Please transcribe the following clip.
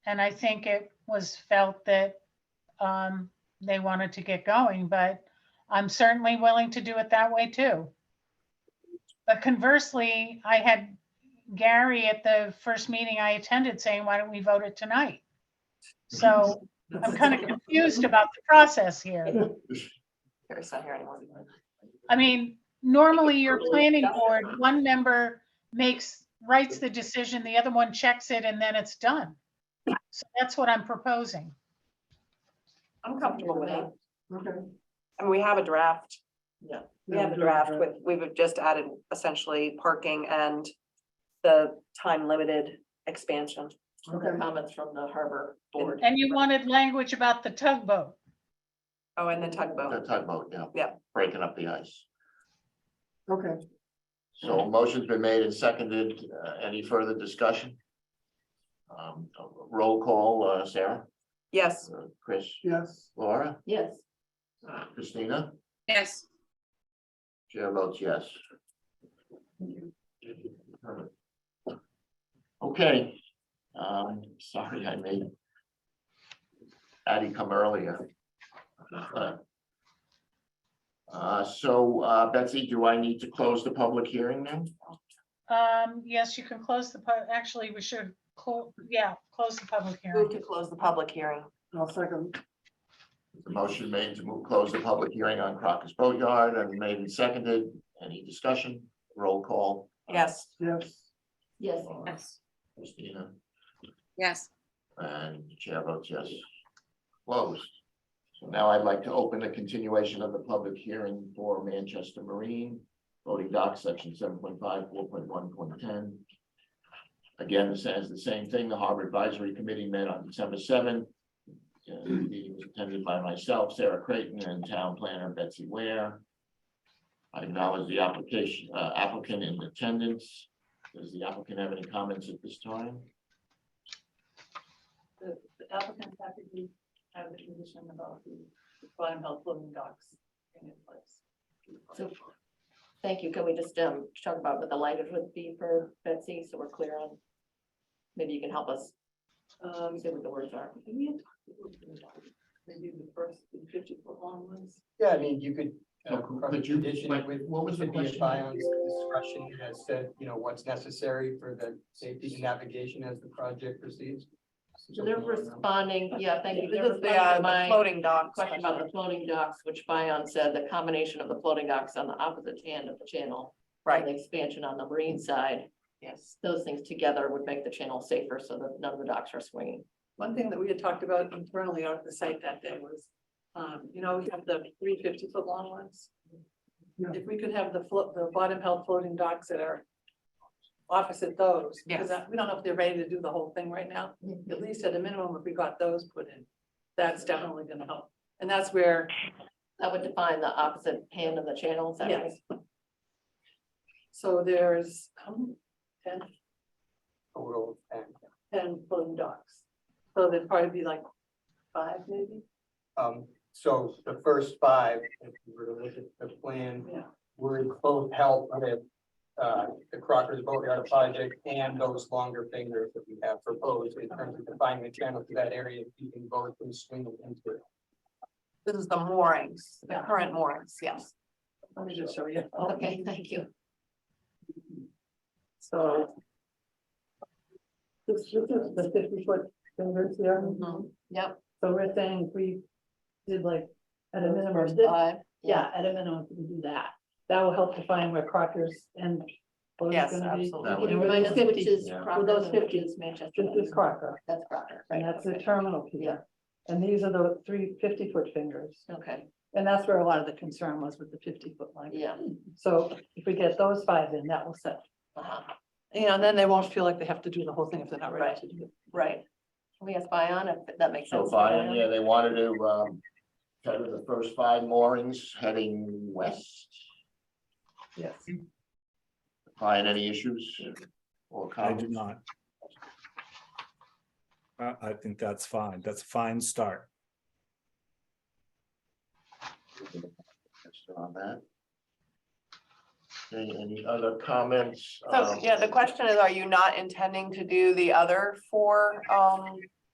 And I think it was felt that um, they wanted to get going, but I'm certainly willing to do it that way too. But conversely, I had Gary at the first meeting I attended saying, why don't we vote it tonight? So I'm kind of confused about the process here. Gary's not here anymore. I mean, normally your planning board, one member makes, writes the decision, the other one checks it, and then it's done. So that's what I'm proposing. I'm comfortable with it. Okay. I mean, we have a draft. Yeah. We have a draft with, we've just added essentially parking and the time limited expansion. Okay. Comments from the harbor board. And you wanted language about the tugboat. Oh, and the The tugboat. tugboat, yeah. Yeah. Breaking up the ice. Okay, So motion's been made and seconded. Uh, Any further discussion? Um, Roll call, uh, Sarah, Yes, uh, Chris, yes. Laura, Uh, Yes. Christina, Yes, chair votes yes. Okay. Um, Sorry, I made Addie come earlier. Uh, So uh, Betsy, do I need to close the public hearing now? Um, yes, you can close the, pub- actually, we should, clo- yeah, close the public move hearing. to close the public hearing. I'll second. The Motion made to move, close the public hearing on Crocker's Boatyard and made and seconded. Any discussion? Roll call. Yes, Yes. Yes. yes, Christina, yes. and the chair votes yes. Closed. So now I'd like to open the continuation of the public hearing for Manchester Marine voting docs, section seven point five, four point one, point ten. Again, this says the same thing. The Harbor Advisory Committee met on December seventh. Uh, the meeting was attended by myself, Sarah Creighton, and town planner Betsy Ware. I acknowledge the application, uh, applicant in attendance. Does the applicant have any comments at this time? the applicant's happy to have the condition about the bottom health floating docks in place. So, thank you. Can we just um talk about what the language would be for Betsy, so we're clear on? Maybe you can help us Um, see what the words are. did we had talked about floating docks? They do the first fifty foot long ones. Yeah, I mean, you could. uh, Now, cross Could you, condition like, it with- what was the Could be a question? Bion's discretion as to, you know, what's necessary for the safety and navigation as the project proceeds. So they're responding, yeah, thank you. this They're is the, responding uh, to the my floating dock question question. about the floating docks, which Bion said the combination of the floating docks on the opposite hand of the channel. and Right, The expansion on the marine side, yes. those things together would make the channel safer so that none of the docks are swinging. One thing that we had talked about internally out at the site that day was, um, you know, we have the three fifty foot long ones. Yeah. If we could have the float, the bottom held floating docks that are opposite those. because Yes. Mm-hmm. We don't know if they're ready to do the whole thing right now. At least at a minimum, if we got those put in, that's definitely gonna help. And that's where, That would define the opposite hand of the channel, is that right? yes. So there's, um, ten, Total, and, ten floating docks. So there'd probably be like five maybe, Um, so the first five, if you were to look at the plan, yeah. would both help with uh, the Crockers Boatyard project and those longer fingers that we have proposed in terms of defining the channel to that area, keeping both from swinging into it. This is the moorings, the current moorings, yes. Let me just show you. Okay, thank you. So. This, this is the fifty foot fingers here, Mm-hmm. Yep. so we're saying if we did like, at a those minimum, first this- five, yeah, at a minimum, we do that. That will help define where Crockers and. Bo's Yes, gonna be. absolutely. That You would- know, Well, remind us those which is 50, yeah. Crocker, Well, those and which 50, is Manchester. This is Crocker, That's Crocker, right? and that's the okay. terminal piece, Yeah. and these are the three 50 foot fingers, Okay, and that's where a lot of the concern was with the fifty foot line. yeah. So if we get those five in, that will set. uh-huh, You know, and then they won't feel like they have to do the whole thing if they're not ready to do it. Right. Can we ask Bion if that makes sense? So to Brian, Bion? yeah, they wanted to, um, cover the first five moorings heading west. Yes. Brian, any issues or I do comments? not. I, I think that's fine. That's a fine start. On that. Any, any other comments? So, Um, yeah, the question is, are you not intending to do the other four um